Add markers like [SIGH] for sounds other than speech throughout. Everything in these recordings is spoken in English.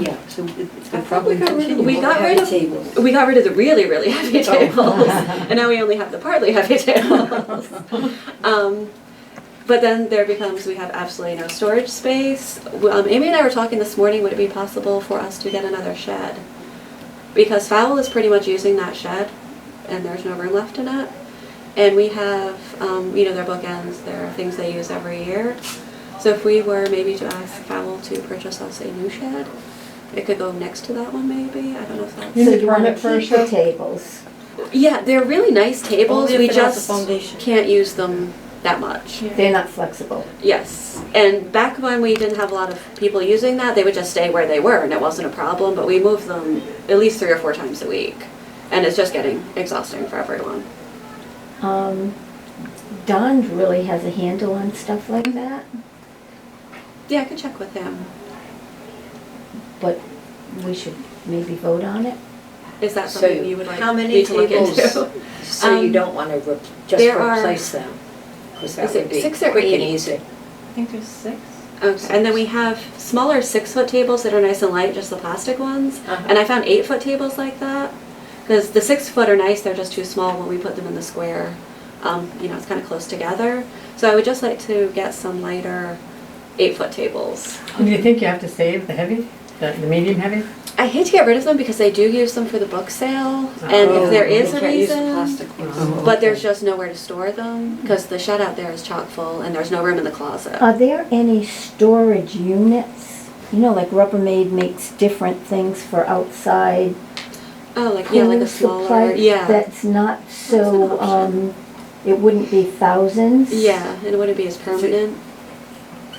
yeah, so it- it's I gonna think we probably got rid of, continue. we We'll got have rid of, [LAUGHS] tables. we got rid of the really, really heavy Oh. tables, and now we only have the partly [LAUGHS] heavy tables. Um, But then there becomes, we have absolutely no storage space. Well, um, Amy and I were talking this morning, would it be possible for us to get another shed? Because Fowl is pretty much using that shed, and there's no room left in it. And we have, um, you know, their bookends, there are things they use every year. So if we were maybe to ask Fowl to purchase us a new shed, it could go next to that one maybe, I don't know if that's. You So need you wanna permit for a keep the shed? tables. Yeah, they're really nice tables. Only if We it has a just foundation. can't use them that much. They're not flexible. Yes. And back when we didn't have a lot of people using that, they would just stay where they were and it wasn't a problem, but we moved them at least three or four times a week. And it's just getting exhausting for everyone. Um, Don really has a handle on stuff like that, Yeah, I could check with him. but we should maybe vote on it. Is that So something you would like how many me to look tables? [LAUGHS] into? So you Um, don't wanna re- just there are- replace them, because that Is it would be six or quick and eight? easy. I think there's six. Okay. And then we have smaller six foot tables that are nice and light, just the plastic ones. Uh-huh. And I found eight foot tables like that. Because the six foot are nice, they're just too small when we put them in the square. Um, you know, it's kind of close together. So I would just like to get some lighter eight foot tables. Do you think you have to save the heavy, the, the medium heavy? I hate to get rid of them because they do use them for the book sale. And if there Oh, you is a can't use the reason. plastic ones. Oh. But there's just nowhere to store them because the shed out there is chock full and there's no room in the closet. Are there any storage units? You know, like Rubbermaid makes different things for outside oh, like, yeah, like pool a smaller. supply. Yeah. That's not an so, option. um, it wouldn't be thousands. yeah, and it wouldn't be as permanent.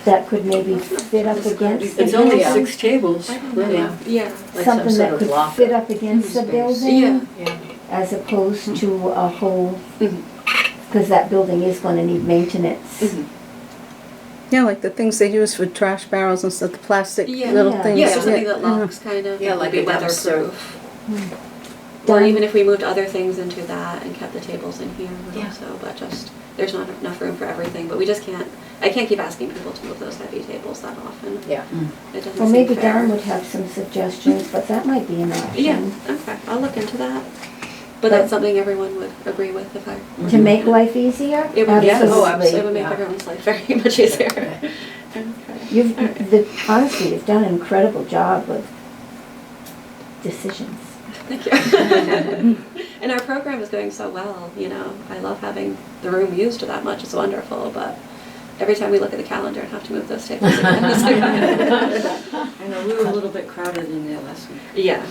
That could maybe fit up against. the It's only building. six tables, Yeah, Yeah. like some Something sort that of could locker. fit up against the Space. building. Yeah. as opposed Mm-hmm. to a whole, Mhm. because that building is gonna need maintenance. Mm-hmm, Mhm. Yeah, like the things they use for trash barrels and stuff, the plastic Yeah. little Yeah. things. Yeah, so something that yeah. Uh-huh. locks kind of. Yeah, would like be a dumpster. weatherproof. Or even if we moved other things into that and kept the tables in here Yeah. also, but just, there's not enough room for everything, but we just can't, I can't keep asking people to move those heavy tables that often. It [LAUGHS] Yeah. doesn't seem fair. Well, maybe Don would have some suggestions, but that might be an Yeah, option. okay, I'll look into that. But But- that's something everyone would agree with if I. [LAUGHS] To make life easier? It would, yeah, oh, it would Absolutely. make yeah. everyone's life [LAUGHS] very much easier. [LAUGHS] Okay. Okay. You've, All right. the, honestly, you've done an incredible job with decisions. Thank you. [LAUGHS] and our program is going so well, you know. I love having the room used that much, it's wonderful, but every time we look at the calendar and have to move those tables again. I know, we were a little bit crowded in there last week. [LAUGHS] yeah.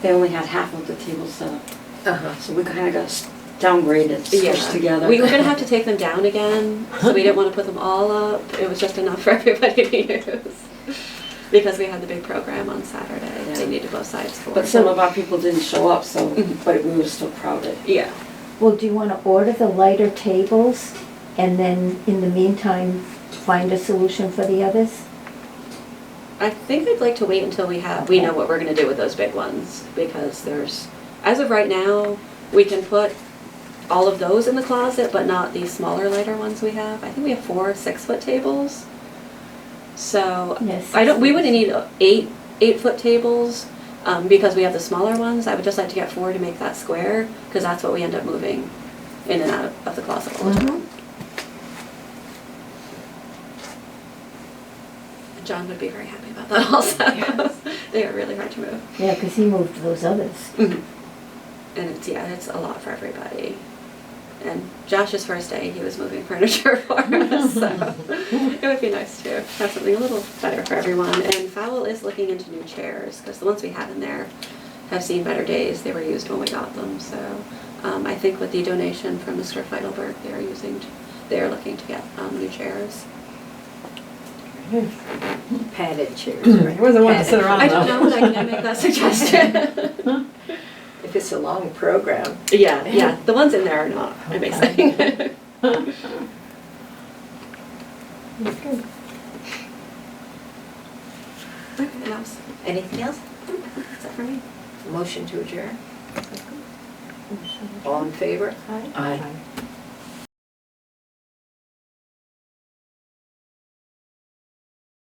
They only had half of the tables set up, Uh-huh. so we kinda got s- downgraded, Yeah. squished together. We were going to have to take them down again, so we didn't want to put them all up. It was just enough [LAUGHS] for everybody to use. Because we had the big program on Saturday, they Yeah. needed both sides for. [LAUGHS] But some of our people didn't show up, so, Mm-hmm. Mhm. but we were still crowded. yeah. Well, do you wanna order the lighter tables and then in the meantime, find a solution for the others? I think I'd like to wait until we have, we know what we're gonna do with those big ones, because there's, as of right now, we can put all of those in the closet, but not these smaller lighter ones we have. I think we have four six-foot tables. So, Yes. I don't, we wouldn't need eight, eight-foot tables, um, because we have the smaller ones. I would just like to get four to make that square, because that's what we end up moving in and out of- of the closet all the time. John would be very happy about that [LAUGHS] also. They are really hard to move. Yeah, because he moved those others. And Mm-hmm. it's, yeah, it's a lot for everybody. And Josh's first day, he was moving [LAUGHS] furniture for us, so it would be nice to have something a little better for everyone. And Fowl is looking into new chairs, because the ones we had in there have seen better days. They were used when we got them, so um, I think with the donation from Mr. Feidelberg, they're using, they're looking to get um, new chairs. Padded chairs, Mm-hmm. It right? wasn't one to sit around I don't though. know, but I can make [LAUGHS] that suggestion. If it's a long program. Yeah, yeah. The ones in there are not amazing. Anything else? Anything else? Is that for me? Motion to adjourn? All in favor? Aye.